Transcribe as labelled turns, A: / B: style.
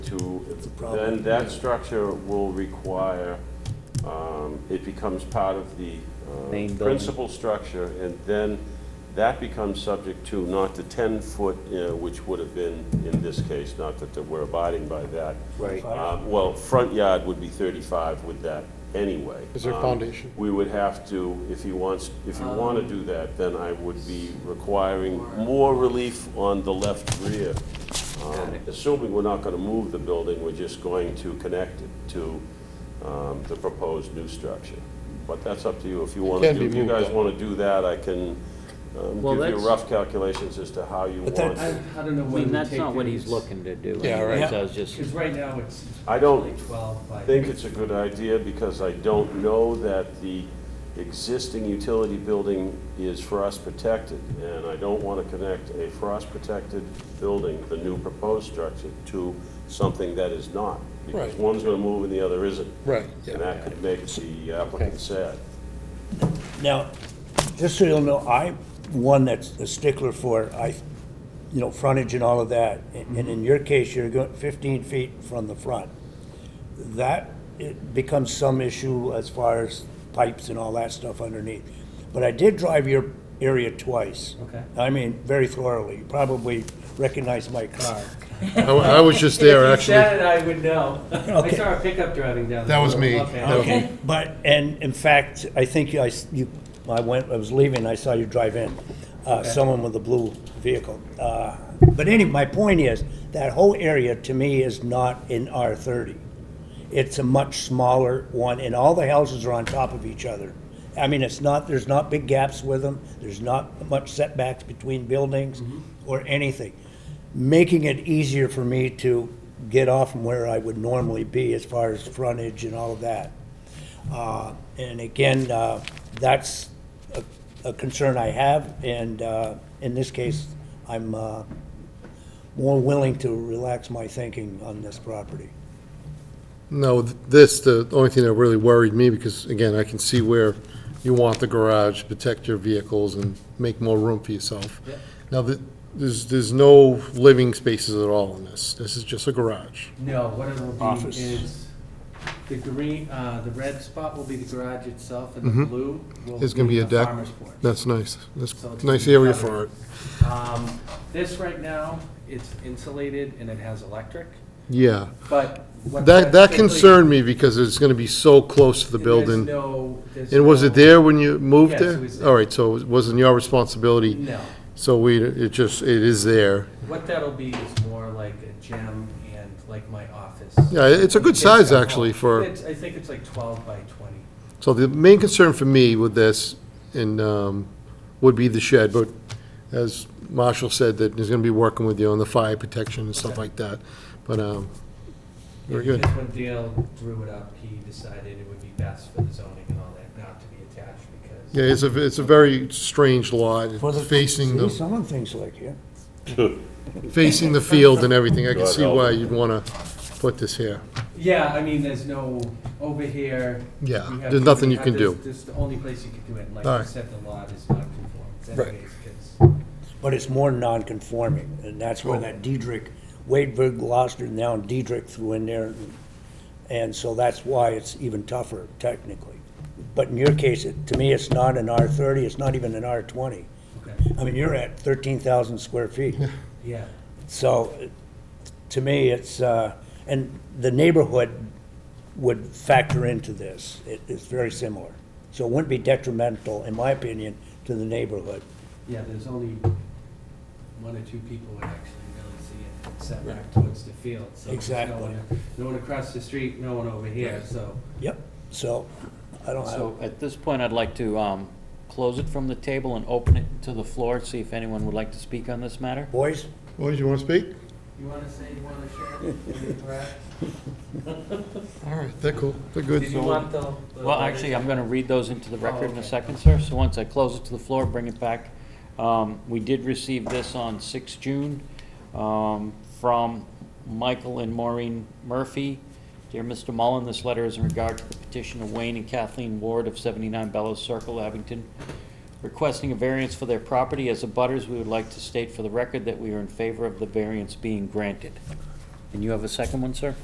A: to,
B: It's a problem.
A: then that structure will require, um, it becomes part of the uh,
C: Main building.
A: principal structure, and then that becomes subject to not the 10-foot, which would have been, in this case, not that they we're abiding by that.
C: Right.
A: Uh, Well, front yard would be 35 with that anyway.
D: Is there
A: Um,
D: foundation?
A: We would have to, if he wants, if you want to do that, then I would be requiring more relief on the left rear. Um, Assuming we're not going to move the building, we're just going to connect it to um, the proposed new structure. But that's up to you, if you want to
D: can
A: do,
D: be
A: if you
D: moved,
A: guys
D: though.
A: want to do that, I can um,
C: Well,
A: give you
C: that's-
A: rough calculations as to how you
B: But
A: want.
B: that-
A: to-
E: I don't know
C: I
E: when
C: mean, that's not what he's looking to do.
D: Yeah, right.
C: anyways, I was just,
E: Because right now it's.
A: I don't
E: like Twelve by.
A: I think it's a good idea because I don't know that the existing utility building is frost protected. And I don't want to connect a frost protected building, the new proposed structure, to something that is not. Because
D: Right.
A: one's going to move and the other isn't.
D: Right, yeah.
A: And that could make the applicant sad.
B: Now, just so you'll know, I'm one that's a stickler for, I, you know, frontage and all of that. And and in your case, you're going fifteen feet from the front. That, it becomes some issue as far as pipes and all that stuff underneath. But I did drive your area twice.
E: Okay.
B: I mean, very thoroughly. You probably recognize my car.
D: I wa- I was just there,
E: If you said
D: actually.
E: it, I would know. I
B: Okay.
E: saw a pickup driving down.
D: That
E: the
D: was
E: road.
D: me.
E: Okay.
D: That was me.
B: But, and in fact, I think I, s- you, I went, I was leaving, I saw you drive in, uh, someone with a blue vehicle. Uh, But any, my point is, that whole area to me is not in R thirty. It's a much smaller one, and all the houses are on top of each other. I mean, it's not, there's not big gaps with them, there's not much setbacks between buildings or anything. Making it easier for me to get off from where I would normally be as far as frontage and all of that. Uh, And again, uh, that's a- a concern I have, and uh, in this case, I'm uh, more willing to relax my thinking on this property.
D: No, th- this, the only thing that really worried me, because again, I can see where you want the garage, protect your vehicles and make more room for yourself.
E: Yeah.
D: Now, th- there's, there's no living spaces at all in this. This is just a garage.
E: No, what it'll be
B: Office.
E: is, the green, uh, the red spot will be the garage itself, and the blue will be
D: Mm-hmm. There's gonna be a
E: the
D: deck.
E: farmer's porch.
D: That's nice. That's
E: So it's
D: nice
E: gonna be
D: area
E: covered.
D: for it.
E: Um, This right now, it's insulated and it has electric,
D: Yeah.
E: but. what-
D: That, that
E: basically-
D: concerned me because it's gonna be so close to the building.
E: There's no. there's
D: And was it
E: no-
D: there when you moved
E: Yes, it
D: there?
E: was there.
D: All right, so it wasn't your responsibility?
E: No.
D: So we, it just, it is there.
E: What that'll be is more like a gym and like my office.
D: Yeah, it's a good
E: Kids come
D: size,
E: home.
D: actually, for,
E: It's- I think it's like twelve by twenty.
D: so the main concern for me with this and, um, would be the shed, but as Marshall said, that he's gonna be working with you on the fire protection and stuff
E: Okay.
D: like that. But, um, very
E: Yeah,
D: good.
E: Because when Dale drew it up, he decided it would be best for the zoning and all that not to be attached because.
D: Yeah, it's a, it's a very strange lot,
B: For the-
D: facing
B: See,
D: the,
B: some of the things like here.
D: facing the field and everything. I can
A: God
D: see
A: help.
D: why you'd wanna put this here.
E: Yeah, I mean, there's no, over here.
D: Yeah,
E: you have
D: there's
E: to-
D: nothing you
E: have
D: can
E: this-
D: do.
E: This is the only place you can do it. and Like you
D: Alright.
E: said, the lot is not conformed
D: Right.
E: anyways, 'cause-
B: But it's more non-conforming, and that's where that Diedrich, Wadeberg, Gloucester, now Diedrich threw in there. And so that's why it's even tougher technically. But in your case, it- to me, it's not an R thirty, it's not even an R twenty.
E: okay,
B: I mean, you're at thirteen thousand square feet.
E: yeah.
B: So, it- to me, it's, uh, and the neighborhood would factor into this. It, it's very similar. So it wouldn't be detrimental, in my opinion, to the neighborhood.
E: Yeah, there's only one or two people would actually really see it set back towards the field. so there's no
B: Exactly.
E: one- No one across the street, no one over here, so.
B: Yep, so, I don't have,
C: so at this point, I'd like to um, close it from the table and open it to the floor, see if anyone would like to speak on this matter.
B: boys?
D: Boys, you wanna speak?
E: You want to say you want to share?
D: All right, they're cool, they're good.
E: Did you want the? the
C: Well, actually, I'm going to read those into the record in
E: okay.
C: a second, sir. So once I close it to the floor, bring it back. Um, We did receive this on 6 June um, from Michael and Maureen Murphy. Dear Mr. Mullen, this letter is in regard to the petition of Wayne and Kathleen Ward of 79 Bellows Circle, Abington, requesting a variance for their property. As abutters, we would like to state for the record that we are in favor of the variance being granted. And you have a second one, sir?